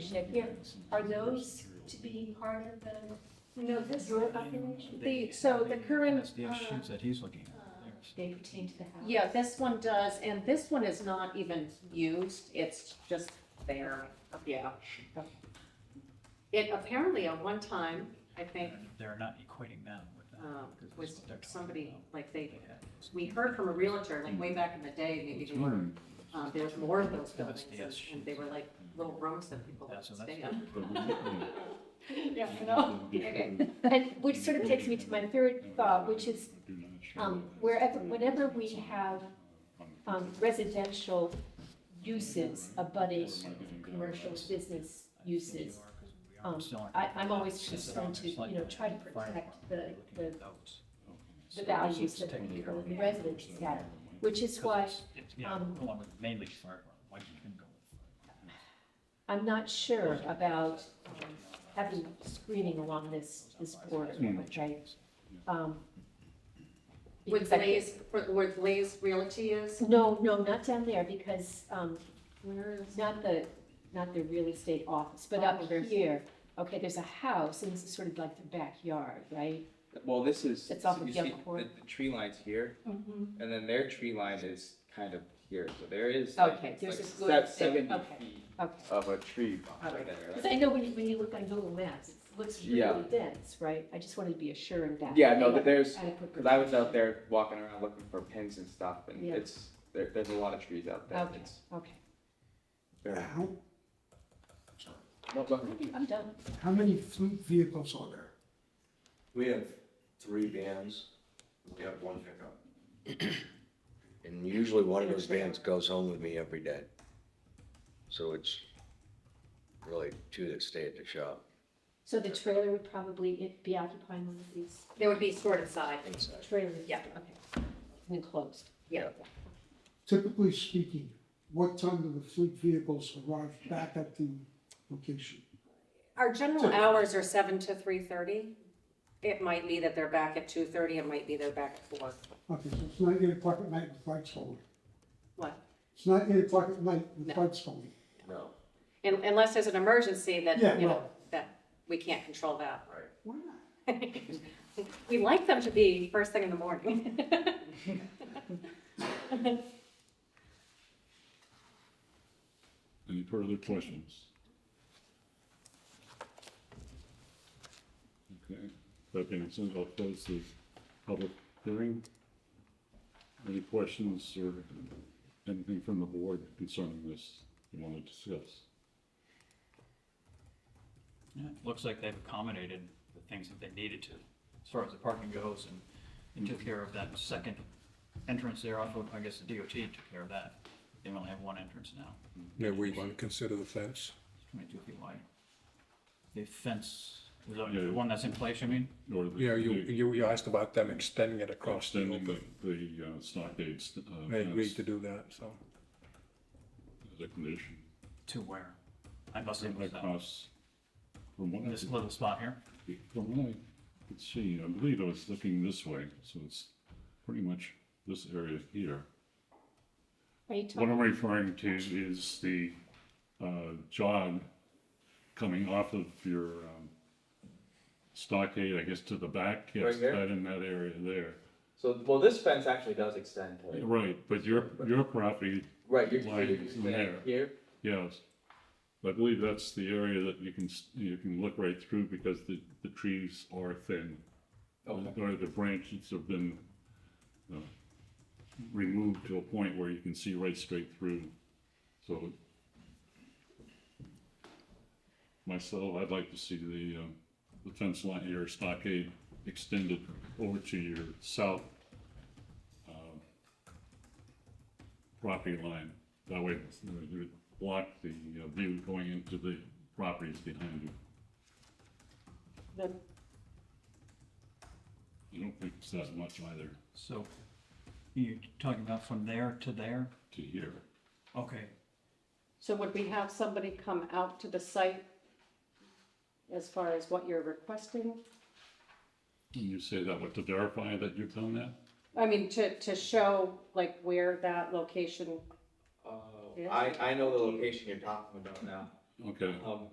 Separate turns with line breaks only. check here, are those to be part of the, no, this is population?
The, so the current,
The issues that he's looking at.
They pertain to the house.
Yeah, this one does, and this one is not even used, it's just there, yeah. It apparently at one time, I think,
They're not equating them with that.
um,
because that's
was
what they're talking
somebody,
about.
like they,
They had those.
we heard from a realtor like way back in the day, maybe
It's
they were,
room.
uh,
um, there was more of those
Yeah, that's
buildings
the
and-
S
and they were like little rooms that people
Yeah,
would
so
stay
that's-
in.
But we didn't.
Yeah, I know. Okay.
And which sort of takes me to my third thought, which is um, wherever, whenever we have um, residential uses abutting commercial business uses, um, I, I'm always concerned to, you know, try to protect the, the, the values that the current residents have, which is why um,
Mainly fire, alarm. why you couldn't go with
I'm not sure about um, having screening along this, this border,
Mm.
right? Um,
Where
because I can't-
Blaze, where Blaze Realty is,
No, no, not down there, because, um,
where is?
not the, not the real estate office, but up here. Okay, there's a house, and this is sort of like the backyard, right?
Well, this is,
It's off
so
of
you see,
Yellow
the,
Court.
the tree line's here,
Mhm.
and then their tree line is kind of here, so there is
Oh,
Okay,
like, like
there's a good
se-
thing,
seventy
okay.
feet
Okay.
of a tree
Alright.
behind
Because
there.
I know when you, when you look on Google Maps, it looks really
Yeah.
dense, right? I just wanted to be assured that.
Yeah, no,
they
that there's,
have adequate
cause I was out there walking around looking for pins and stuff, and
Yeah.
it's, there, there's a lot of trees out there.
Okay.
It's
Okay,
very. No, go ahead.
I'm done.
How many fleet vehicles are there?
We have three vans, we have one pickup. And usually one of those vans goes home with me every day. So it's really two that stay at the shop
So the trailer would probably i- be occupying one of these
There would be sort of side,
inside.
trailers?
Yeah.
Okay. Enclosed.
yeah.
Typically speaking, what time do the fleet vehicles arrive back at the location?
Our general hours are seven to three thirty. It might be that they're back at two thirty, it might be they're back at four.
Okay, so it's not eight o'clock at night with lights on.
What?
It's not eight o'clock at night with
No.
lights on.
No,
Un- Unless there's an emergency that,
Yeah,
you know,
well-
that we can't control that.
right.
Why not?
We like them to be first thing in the morning.
Any further questions? Okay, that being said, I'll close the public hearing. Any questions or anything from the board concerning this you want to discuss?
Yeah, it Looks like they've accommodated the things that they needed to, as far as the parking goes, and they took care of that second entrance there off of, I guess the DOT took care of that. They only have one entrance now,
Maybe we want to consider the fence.
twenty-two feet wide. The fence, is that
Yeah.
the one that's in place, I mean?
Or the-
You know, you, you you asked about them extending it across the
Extending the,
open.
the uh, stockades. uh,
They agreed
fence
to do that, so.
As a condition,
To where? I must have missed that.
across from what I
This little spot here?
From what I could see, I believe I was looking this way, so it's pretty much this area here.
Are you
What
talking,
I'm referring to is the uh, jog coming off of your um, stockade, I guess, to the back. Yes,
Right there?
That in that area there.
So, well, this fence actually does extend to,
Right, but your, your property,
right, you're,
Like
you're
from there.
here,
yes. I believe that's the area that you can, s- you can look right through because the, the trees are thin.
okay,
Or the branches have been uh, removed to a point where you can see right straight through. So myself, I'd like to see the, uh, the fence line here, stockade extended over to your south um, property line. That way you know, you would block the uh, view going into the properties behind you.
The-
I don't think it's that much either
So you're talking about from there to there?
to here.
Okay,
So would we have somebody come out to the site as far as what you're requesting?
And you say that what to verify that you've done that?
I mean, to, to show like where that location
oh,
Yeah.
I, I know the location you're talking about now.
Okay.
Um,